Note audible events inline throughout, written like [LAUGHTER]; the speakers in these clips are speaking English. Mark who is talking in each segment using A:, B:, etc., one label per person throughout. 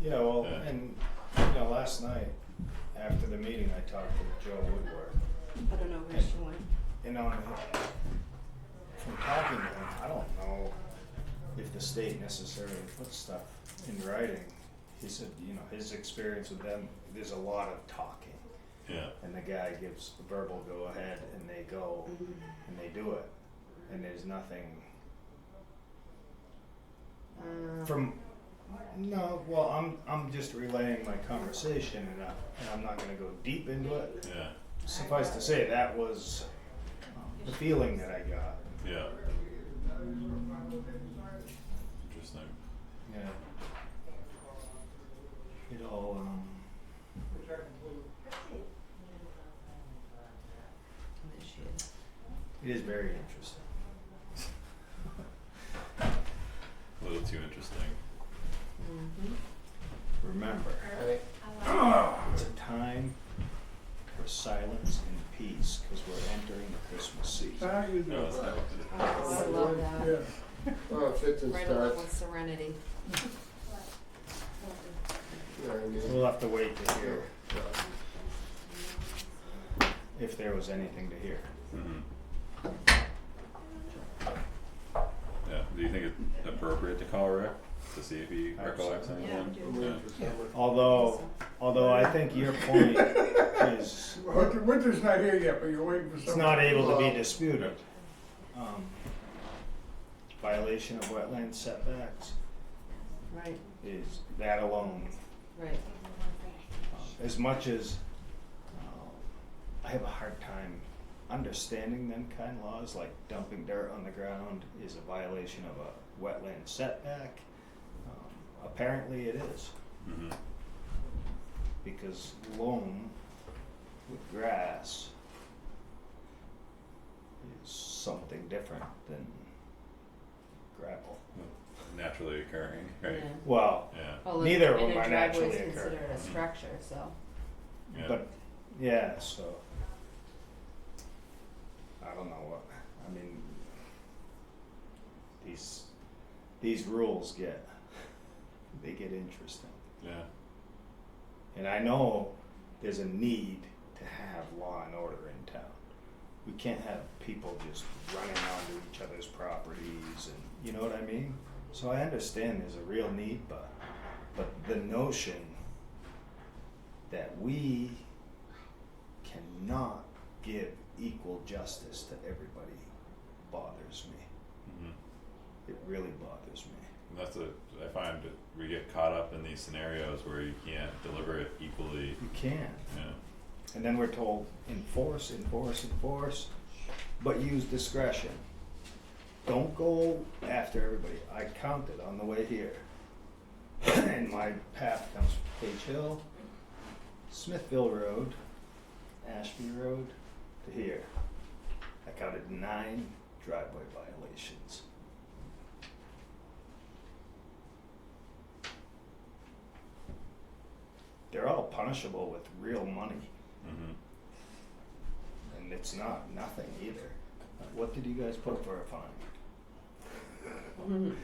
A: Yeah, well,
B: Yeah.
A: and, you know, last night, after the meeting, I talked to Joe Woodward,
C: I don't know where she went.
A: and on, from talking to him, I don't know if the state necessarily puts stuff in writing. He said, you know, his experience with them, there's a lot of talking,
B: yeah,
A: and the guy gives the verbal go-ahead, and they go, and they do it, and there's nothing from no well i'm i'm just relaying my conversation and, I, and i'm not going to go deep into it
B: yeah,
A: suffice to say that was um, the feeling that i got
B: yeah. Interesting.
A: yeah it all um
C: There she is.
A: it is very interesting
B: A little too interesting.
C: Mm-hmm.
A: remember it's a time for silence and peace because we're entering the christmas season
B: No, that's not what it-
C: I love that.
D: Oh, it fits and
C: Right along
D: starts.
C: with Serenity.
D: You know what I mean?
A: we'll have to wait to hear
D: Yeah.
A: if there was anything to hear
B: Mhm. Yeah, do you think it's appropriate to call Rick to see if he recollects
A: Absolutely.
B: anyone?
C: Yeah,
D: I'm
B: Yeah.
D: waiting for someone.
A: although although i think your point is
E: Winter, winter's not here yet, but you're waiting for
A: It's
E: something.
A: not able to be disputed. Um, Violation of wetland setbacks
C: Right,
A: is that alone,
C: right.
A: um, as much as um, I have a hard time understanding them kind of laws, like dumping dirt on the ground is a violation of a wetland setback. Um, Apparently it is,
B: Mhm.
A: because loam with grass is something different than gravel.
B: Naturally occurring, right?
C: Yeah.
A: Well,
B: Yeah,
C: Although
A: Neither of
C: in
A: them
C: a
A: are
C: driveway
A: naturally
C: is
A: occurring.
C: considered a structure, so.
B: yeah.
A: but yeah, so I don't know what I mean. These these rules get they get interesting,
B: Yeah,
A: and I know there's a need to have law and order in town. We can't have people just running onto each other's properties, and you know what I mean. So I understand there's a real need, but but the notion that we cannot give equal justice to everybody bothers me.
B: mhm.
A: It really bothers me.
B: And that's what I find that we get caught up in these scenarios where you can't deliver it equally.
A: You can't.
B: Yeah,
A: And then we're told enforce, enforce, enforce, but use discretion. Don't go after everybody. I counted on the way here. [CLEARS THROAT] and my path comes from Page Hill, Smithville Road, Ashby Road to here. I counted nine driveway violations. They're all punishable with real money.
B: mhm.
A: And it's not nothing either. What did you guys put for a fine?
C: Mhm.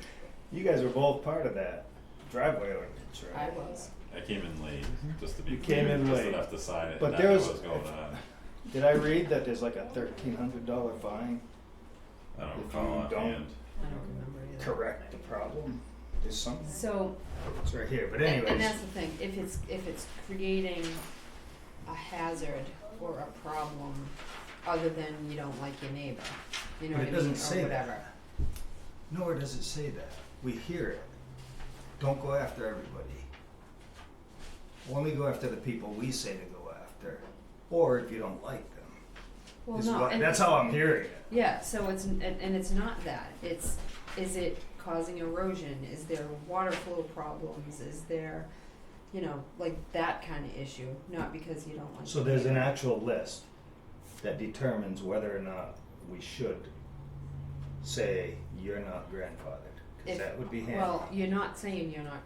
A: You guys were both part of that driveway ordinance,
C: I
A: right?
C: was.
B: I came in late, just to be
A: Mm-hmm. You
B: clear,
A: came in
B: just
A: late.
B: enough to sign it,
A: But
B: and not
A: there
B: know
A: was-
B: what was going on.
A: Did I read that there's like a thirteen hundred dollar fine?
B: I
A: If
B: don't
A: you
B: recall offhand.
C: I don't remember either.
A: Correct the problem. There's something.
C: So,
A: It's right here, but
C: and-
A: anyways.
C: and that's the thing, if it's, if it's creating a hazard or a problem other than you don't like your neighbor, you know
A: But
C: what
A: it
C: I mean, or whatever.
A: doesn't say that. Nor does it say that. We hear it. Don't go after everybody. Only go after the people we say to go after, or if you don't like them.
C: Well,
A: is
C: no,
A: what-
C: and-
A: That's how I'm hearing it.
C: Yeah, so it's, and, and it's not that, it's, is it causing erosion, is there water flow problems, is there, you know, like that kinda issue, not because you don't like.
A: So there's an actual list that determines whether or not we should say you're not grandfathered, because
C: If-
A: that would be handy.
C: Well, you're not saying you're not